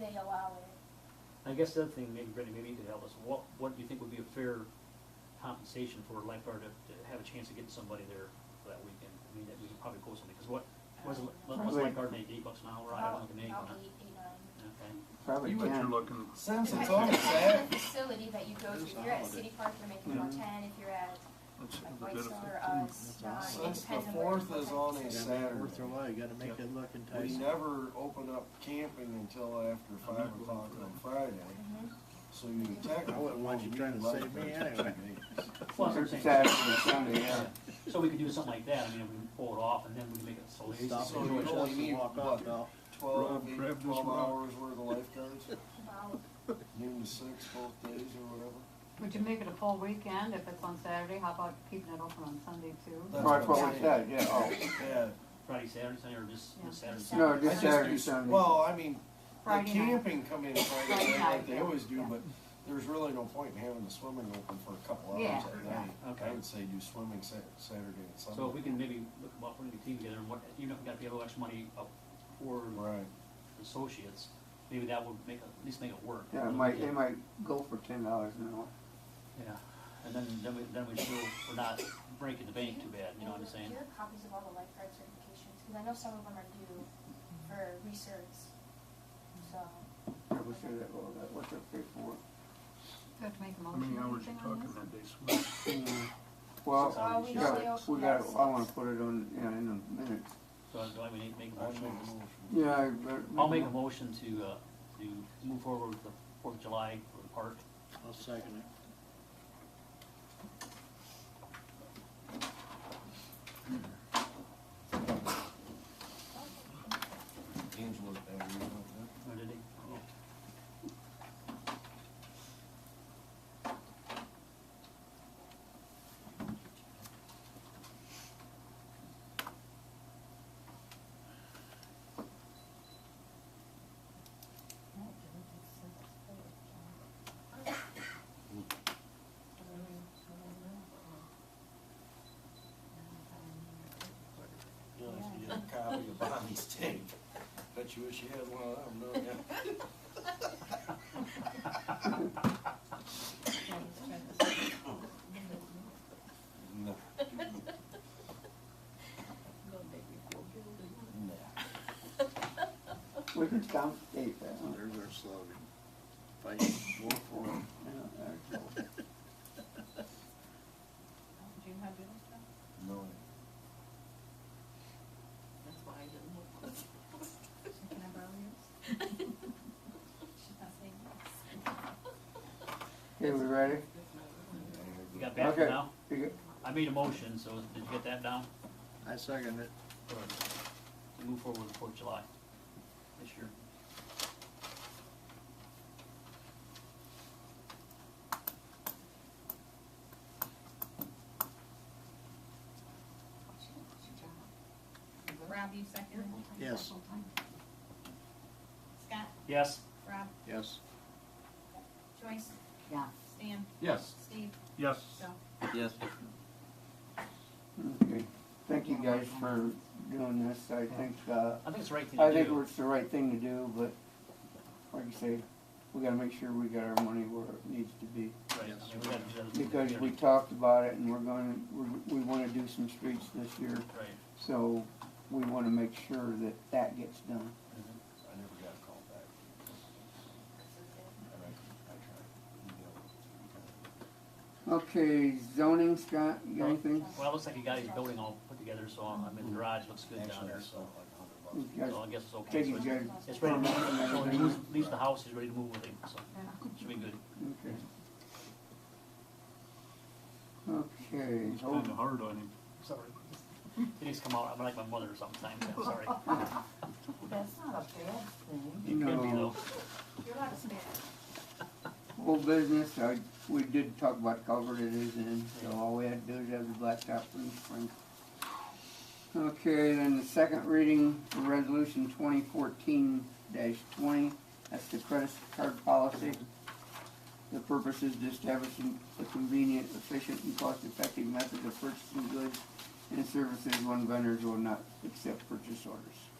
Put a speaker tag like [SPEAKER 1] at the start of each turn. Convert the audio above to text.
[SPEAKER 1] they allow it.
[SPEAKER 2] I guess the other thing, maybe Brittany, maybe you could help us, what, what do you think would be a fair compensation for a lifeguard to, to have a chance of getting somebody there for that weekend? I mean, that we could probably quote somebody, because what, what's, a- what's a lifeguard make, eight bucks an hour, I don't think an eight,
[SPEAKER 1] About
[SPEAKER 2] huh?
[SPEAKER 1] eight, eight, nine.
[SPEAKER 2] Okay.
[SPEAKER 3] Probably
[SPEAKER 4] You what you're
[SPEAKER 3] can.
[SPEAKER 4] looking,
[SPEAKER 5] Since
[SPEAKER 1] It
[SPEAKER 5] it's
[SPEAKER 1] might
[SPEAKER 5] on
[SPEAKER 1] be depending on
[SPEAKER 5] Saturday,
[SPEAKER 1] the Facility that you go to, if you're at City Park, you're making about ten, if you're at
[SPEAKER 4] that's
[SPEAKER 1] like
[SPEAKER 4] the
[SPEAKER 1] White
[SPEAKER 4] benefit.
[SPEAKER 1] Star,
[SPEAKER 5] Mm.
[SPEAKER 1] us, nine, it
[SPEAKER 5] since the
[SPEAKER 1] depends on where.
[SPEAKER 5] fourth
[SPEAKER 1] what
[SPEAKER 5] is
[SPEAKER 1] time
[SPEAKER 5] on
[SPEAKER 1] it
[SPEAKER 5] a
[SPEAKER 1] is.
[SPEAKER 5] Saturday,
[SPEAKER 6] Worth their while, you gotta make that look
[SPEAKER 5] we
[SPEAKER 6] enticing.
[SPEAKER 5] never open up camping until after five o'clock on Friday,
[SPEAKER 1] Mhm.
[SPEAKER 5] so you technically.
[SPEAKER 6] I wouldn't want you trying to save me anyway.
[SPEAKER 2] Well, that's what I'm saying.
[SPEAKER 3] Saturday, Sunday, yeah.
[SPEAKER 2] So we could do something like that, I mean, we can pull it off, and then we can make it so easy.
[SPEAKER 6] Stop
[SPEAKER 5] So
[SPEAKER 6] and
[SPEAKER 5] you
[SPEAKER 6] push
[SPEAKER 5] only
[SPEAKER 6] us and
[SPEAKER 5] need
[SPEAKER 6] walk
[SPEAKER 5] what?
[SPEAKER 6] off, though.
[SPEAKER 5] Twelve,
[SPEAKER 4] Rob,
[SPEAKER 5] maybe
[SPEAKER 4] grab this
[SPEAKER 5] twelve
[SPEAKER 4] rock.
[SPEAKER 5] hours worth of lifeguards,
[SPEAKER 1] About-
[SPEAKER 5] noon to six both days or whatever.
[SPEAKER 7] Would you make it a full weekend if it's on Saturday? How about keeping it open on Sunday too?
[SPEAKER 5] That's
[SPEAKER 3] Well, That's
[SPEAKER 5] I'm
[SPEAKER 3] what we
[SPEAKER 5] saying.
[SPEAKER 3] said, yeah, oh,
[SPEAKER 5] Yeah,
[SPEAKER 2] Friday, Saturday, Sunday, or just
[SPEAKER 7] Yeah.
[SPEAKER 2] just Saturday? Sunday?
[SPEAKER 3] no, this
[SPEAKER 5] I just-
[SPEAKER 3] Saturday, Sunday.
[SPEAKER 5] well, I mean, the
[SPEAKER 7] Friday night.
[SPEAKER 5] camping come in Friday
[SPEAKER 7] Friday
[SPEAKER 5] night like
[SPEAKER 7] night,
[SPEAKER 5] they
[SPEAKER 7] yeah,
[SPEAKER 5] always do,
[SPEAKER 7] yeah.
[SPEAKER 5] but there's really no point in having the swimming open for a couple
[SPEAKER 7] Yeah,
[SPEAKER 5] hours at
[SPEAKER 7] yeah.
[SPEAKER 5] night.
[SPEAKER 2] Okay.
[SPEAKER 5] I would say do swimming Sat- Saturday and Sunday.
[SPEAKER 2] So if we can maybe look, what, put a team together, and what, even if we gotta pay a little extra money up for
[SPEAKER 5] Right.
[SPEAKER 2] associates, maybe that would make, it- at least make it work.
[SPEAKER 3] Yeah, it might, they might go for ten dollars an hour.
[SPEAKER 2] Yeah, and then, then we, then we still, we're not breaking the bank too bad, you know what I'm saying?
[SPEAKER 1] Do you have copies of all the lifeguard certifications? Because I know some of them are due for research, so.
[SPEAKER 3] I was sure that, well, that, what's up there for?
[SPEAKER 7] Do I have to make a
[SPEAKER 4] How
[SPEAKER 7] motion
[SPEAKER 4] many
[SPEAKER 7] or
[SPEAKER 4] hours you
[SPEAKER 7] anything on
[SPEAKER 4] talking
[SPEAKER 7] this?
[SPEAKER 4] that day, Swin?
[SPEAKER 2] Six hours.
[SPEAKER 3] Well,
[SPEAKER 1] Well, we
[SPEAKER 3] we
[SPEAKER 1] know they
[SPEAKER 3] got,
[SPEAKER 1] open
[SPEAKER 3] we got,
[SPEAKER 1] at
[SPEAKER 3] I wanna
[SPEAKER 1] six.
[SPEAKER 3] put it on, you know, in a minute.
[SPEAKER 2] So do I we need to make a
[SPEAKER 5] I'd make a
[SPEAKER 2] motion?
[SPEAKER 5] motion.
[SPEAKER 3] Yeah, I- but.
[SPEAKER 2] I'll make a motion to, uh, to move forward with the Fourth of July for the park.
[SPEAKER 6] I'll second it.
[SPEAKER 5] Angela's better, you know,
[SPEAKER 2] Or did it?
[SPEAKER 6] Yeah, if you
[SPEAKER 5] that. A Copy of Bonnie's tape. Bet you wish you had one of them, don't ya? No. No.
[SPEAKER 3] We could complicate that, huh?
[SPEAKER 6] There's our slogan. Fight, war for it.
[SPEAKER 3] Yeah, there it goes.
[SPEAKER 5] No.
[SPEAKER 1] Can I borrow yours? She's not saying
[SPEAKER 3] Okay, we ready?
[SPEAKER 2] You got that
[SPEAKER 3] Okay.
[SPEAKER 2] now?
[SPEAKER 3] You got-
[SPEAKER 2] I made a motion, so did you get that down?
[SPEAKER 6] I second it.
[SPEAKER 2] Or to move forward with the Fourth of July this year?
[SPEAKER 8] Rob, you second?
[SPEAKER 6] Yes.
[SPEAKER 8] Scott,
[SPEAKER 2] Yes?
[SPEAKER 8] Rob,
[SPEAKER 6] Yes.
[SPEAKER 8] Joyce,
[SPEAKER 7] Yeah.
[SPEAKER 8] Stan,
[SPEAKER 4] Yes.
[SPEAKER 8] Steve,
[SPEAKER 4] Yes.
[SPEAKER 8] Joe.
[SPEAKER 3] Okay, thank you guys for doing this, I think, uh,
[SPEAKER 2] I think it's the right thing
[SPEAKER 3] I
[SPEAKER 2] to
[SPEAKER 3] think
[SPEAKER 2] do.
[SPEAKER 3] it's the right thing to do, but like you say, we gotta make sure we got our money where it needs to be.
[SPEAKER 2] Right, I mean, we gotta do that.
[SPEAKER 3] Because we talked about it and we're gonna, we, we wanna do some streets this year,
[SPEAKER 2] Right.
[SPEAKER 3] so we wanna make sure that that gets done.
[SPEAKER 5] I
[SPEAKER 2] Mm-hmm.
[SPEAKER 5] never got a call back. And I, I tried. email.
[SPEAKER 3] Okay, zoning, Scott, you got anything?
[SPEAKER 2] Well, it looks like you got your building all put together, so I mean, the garage looks good down
[SPEAKER 5] Actually, I
[SPEAKER 2] there,
[SPEAKER 5] saw
[SPEAKER 2] so,
[SPEAKER 5] it like a hundred bucks.
[SPEAKER 3] You guys,
[SPEAKER 2] so I guess it's okay.
[SPEAKER 3] take
[SPEAKER 2] So
[SPEAKER 3] it,
[SPEAKER 2] it's-
[SPEAKER 3] guys.
[SPEAKER 2] It's ready to move, so when he moves- leaves the house, he's ready to move with him, so should be good.
[SPEAKER 3] Okay. Okay,
[SPEAKER 4] He's
[SPEAKER 3] hold
[SPEAKER 4] kinda hard on him.
[SPEAKER 2] Sorry. It needs to come out, I'm like my mother sometimes, I'm sorry.
[SPEAKER 7] That's not a bad thing.
[SPEAKER 2] It can be
[SPEAKER 3] No.
[SPEAKER 2] though.
[SPEAKER 1] You're allowed to spare.
[SPEAKER 3] Old business, I, we did talk about culvert it is in, so all we had to do is have the blacktop in spring. Okay, then the second reading, for resolution twenty fourteen twenty, that's the credit card policy. The purpose is to establish a convenient, efficient, and cost-effective method of purchasing goods and services when vendors will not accept purchase orders.